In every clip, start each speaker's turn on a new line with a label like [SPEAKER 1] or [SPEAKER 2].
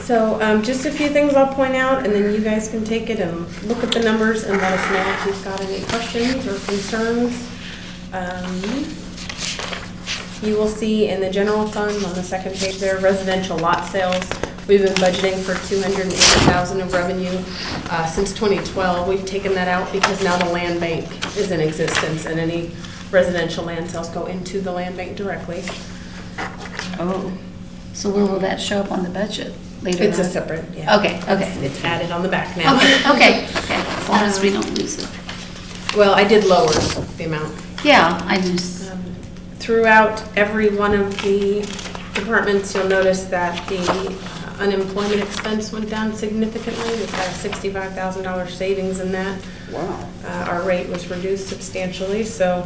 [SPEAKER 1] So um, just a few things I'll point out, and then you guys can take it and look at the numbers and let us know if you've got any questions or concerns. Um, You will see in the general fund on the second page there, residential lot sales. We've been budgeting for 280,000 of revenue uh, since 2012. We've taken that out because now the land bank is in existence, and any residential land sales go into the land bank directly.
[SPEAKER 2] Oh, so where will that show up on the budget later
[SPEAKER 1] It's a
[SPEAKER 2] on?
[SPEAKER 1] separate, yeah.
[SPEAKER 2] Okay, okay.
[SPEAKER 1] It's added on the back now.
[SPEAKER 2] Okay, okay, okay, as long as we don't lose it.
[SPEAKER 1] Well, I did lower the amount.
[SPEAKER 2] Yeah, I just,
[SPEAKER 1] Um, Throughout every one of the departments, you'll notice that the uh, unemployment expense went down significantly. We've got a $65,000 savings in that.
[SPEAKER 3] Wow.
[SPEAKER 1] Uh, Our rate was reduced substantially, so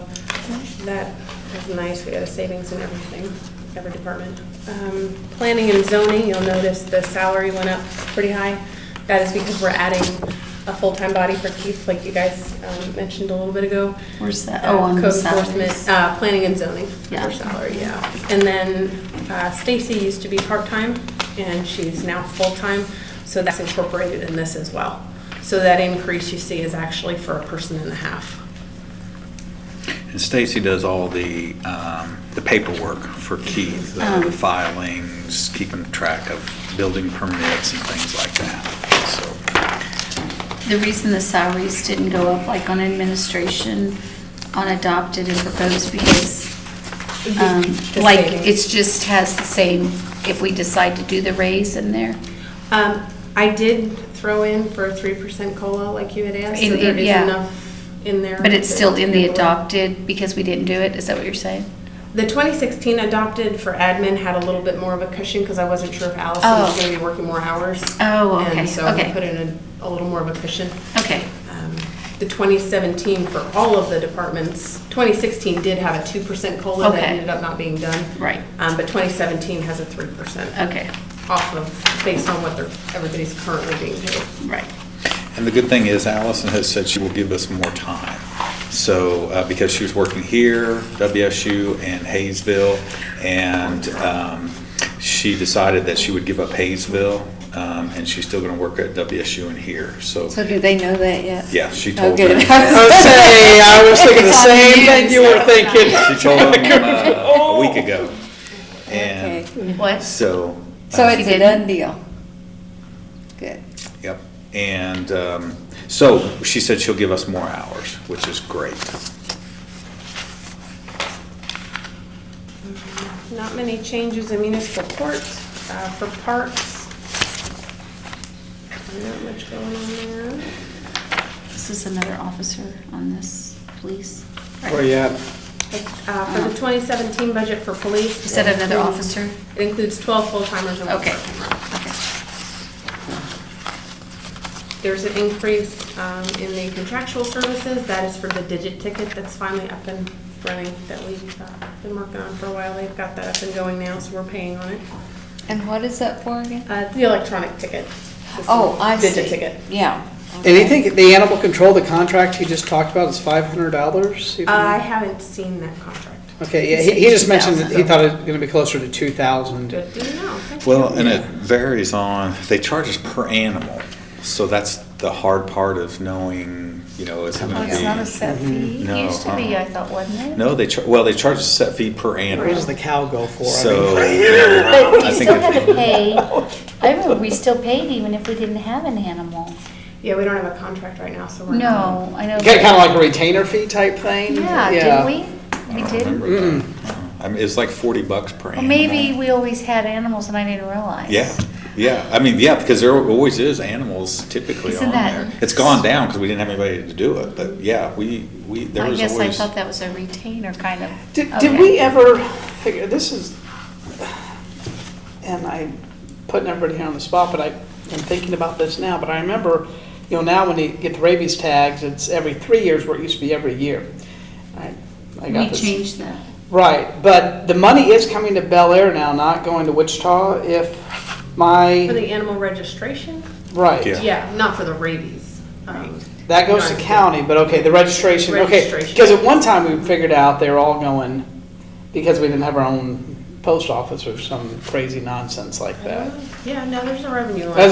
[SPEAKER 1] that was nice. We had a savings in everything, every department. Um, Planning and zoning, you'll notice the salary went up pretty high. That is because we're adding a full-time body for Keith, like you guys um, mentioned a little bit ago.
[SPEAKER 2] where's that? Oh, on the
[SPEAKER 1] Code enforcement,
[SPEAKER 2] salaries.
[SPEAKER 1] uh, planning and zoning
[SPEAKER 2] Yeah.
[SPEAKER 1] for salary, yeah. And then uh, Stacy used to be part-time, and she's now full-time, so that's incorporated in this as well. So that increase you see is actually for a person and a half.
[SPEAKER 4] And Stacy does all the, um, the paperwork for Keith, the the filings, keeping track of building permits and things like that,
[SPEAKER 2] The reason the salaries didn't go up like on administration, on adopted and proposed because, um,
[SPEAKER 1] The
[SPEAKER 2] like,
[SPEAKER 1] savings.
[SPEAKER 2] it's just has the same, if we decide to do the raise in there.
[SPEAKER 1] Um, I did throw in for a three percent COLA, like you had asked, so
[SPEAKER 2] In-
[SPEAKER 1] there is
[SPEAKER 2] yeah.
[SPEAKER 1] enough in there.
[SPEAKER 2] But it's
[SPEAKER 1] to
[SPEAKER 2] still in the
[SPEAKER 1] handle it.
[SPEAKER 2] adopted because we didn't do it, is that what you're saying?
[SPEAKER 1] The 2016 adopted for admin had a little bit more of a cushion because I wasn't sure if Allison was
[SPEAKER 2] Oh.
[SPEAKER 1] going to be working more hours.
[SPEAKER 2] Oh, okay,
[SPEAKER 1] And so we
[SPEAKER 2] okay.
[SPEAKER 1] put in a, a little more of a cushion.
[SPEAKER 2] Okay,
[SPEAKER 1] Um, The 2017 for all of the departments, 2016 did have a 2% COLA that
[SPEAKER 2] Okay.
[SPEAKER 1] ended up not being done.
[SPEAKER 2] Right.
[SPEAKER 1] Um, But 2017 has a 3%
[SPEAKER 2] okay,
[SPEAKER 1] off of, based on what they're, everybody's currently being paid.
[SPEAKER 2] right.
[SPEAKER 4] so. And the good thing is Allison has said she will give us more time. So, uh, because she was working here, WSU and Hayesville, and um, she decided that she would give up Hayesville, um, and she's still going to work at WSU and here, so,
[SPEAKER 5] So do they know that yet?
[SPEAKER 4] yeah, she
[SPEAKER 5] Oh,
[SPEAKER 4] told
[SPEAKER 5] good.
[SPEAKER 4] them.
[SPEAKER 3] Okay, I was thinking the
[SPEAKER 2] It's on the
[SPEAKER 3] same thing
[SPEAKER 2] news.
[SPEAKER 3] you were thinking.
[SPEAKER 4] She told them uh, a week ago. And
[SPEAKER 5] Okay.
[SPEAKER 2] What?
[SPEAKER 4] so.
[SPEAKER 5] So
[SPEAKER 4] uh,
[SPEAKER 5] it's a done deal. Good.
[SPEAKER 4] Yep, and um, so she said she'll give us more hours, which is great.
[SPEAKER 1] Not many changes in municipal court, uh, for parks. Not much going on there.
[SPEAKER 2] This is another officer on this, police.
[SPEAKER 3] Where you at?
[SPEAKER 1] Uh, For the 2017 budget for police.
[SPEAKER 2] You said another
[SPEAKER 1] it includes-
[SPEAKER 2] officer?
[SPEAKER 1] It includes 12 full-timers and one
[SPEAKER 2] Okay.
[SPEAKER 1] part-timer.
[SPEAKER 2] Okay.
[SPEAKER 1] There's an increase um, in the contractual services, that is for the digit ticket that's finally up and running, that we've uh, been working on for a while. They've got that up and going now, so we're paying on it.
[SPEAKER 5] And what is that for again?
[SPEAKER 1] Uh, The electronic ticket.
[SPEAKER 5] Oh, I see.
[SPEAKER 1] Digit ticket.
[SPEAKER 5] Yeah.
[SPEAKER 3] And you think the animal control, the contract you just talked about is five hundred dollars?
[SPEAKER 1] Uh, I haven't seen that contract.
[SPEAKER 3] Okay, yeah, he, he just mentioned that he
[SPEAKER 5] 2,000.
[SPEAKER 3] thought it was gonna be closer to two thousand.
[SPEAKER 1] Good to know. Thank you.
[SPEAKER 4] Well, and it varies on, they charge us per animal, so that's the hard part of knowing, you know, is it
[SPEAKER 5] Oh,
[SPEAKER 4] going
[SPEAKER 5] It's not a
[SPEAKER 4] to
[SPEAKER 5] set fee.
[SPEAKER 4] be?
[SPEAKER 2] It
[SPEAKER 4] No,
[SPEAKER 2] used to be,
[SPEAKER 4] uh-uh.
[SPEAKER 2] I thought, wasn't it?
[SPEAKER 4] No, they, char- well, they charge a set fee per
[SPEAKER 3] What
[SPEAKER 4] animal,
[SPEAKER 3] does the cow go for? I
[SPEAKER 4] so.
[SPEAKER 3] mean,
[SPEAKER 4] yeah,
[SPEAKER 6] But
[SPEAKER 4] I
[SPEAKER 6] we
[SPEAKER 4] think
[SPEAKER 6] still
[SPEAKER 4] if
[SPEAKER 6] had
[SPEAKER 4] we-
[SPEAKER 6] to pay, I remember we still paid even if we didn't have an animal.
[SPEAKER 1] Yeah, we don't have a contract right now, so we're.
[SPEAKER 2] No, I know.
[SPEAKER 3] Kinda, kinda like a retainer fee type thing?
[SPEAKER 6] Yeah, did we?
[SPEAKER 4] I
[SPEAKER 6] We
[SPEAKER 4] don't
[SPEAKER 6] did.
[SPEAKER 4] remember that. Uh-uh. I mean, it's like forty bucks per
[SPEAKER 6] Well,
[SPEAKER 4] animal.
[SPEAKER 6] maybe we always had animals and I didn't realize.
[SPEAKER 4] Yeah, yeah, I mean, yeah, because there always is animals typically
[SPEAKER 6] Isn't
[SPEAKER 4] on
[SPEAKER 6] that-
[SPEAKER 4] there. It's gone down because we didn't have anybody to do it, but yeah, we, we, there
[SPEAKER 6] I
[SPEAKER 4] was always.
[SPEAKER 6] guess I thought that was a retainer kind of.
[SPEAKER 3] Did,
[SPEAKER 6] Okay.
[SPEAKER 3] did we ever figure, this is, and I putting everybody here on the spot, but I am thinking about this now, but I remember, you know, now when you get the rabies tags, it's every three years where it used to be every year. I I got
[SPEAKER 2] We
[SPEAKER 3] this-
[SPEAKER 2] changed that.
[SPEAKER 3] Right, but the money is coming to Bel Air now, not going to Wichita if
[SPEAKER 1] For
[SPEAKER 3] my,
[SPEAKER 1] the animal registration?
[SPEAKER 4] Yeah.
[SPEAKER 3] right.
[SPEAKER 1] Yeah, not for the rabies. Um,
[SPEAKER 3] That goes to
[SPEAKER 1] Right.
[SPEAKER 3] county, but okay, the registration, okay.
[SPEAKER 1] Registration.
[SPEAKER 3] Because at one time we figured out they were all going, because we didn't have our own
[SPEAKER 1] post office or some crazy nonsense like that.
[SPEAKER 3] Yeah, no, there's a revenue line.
[SPEAKER 1] That's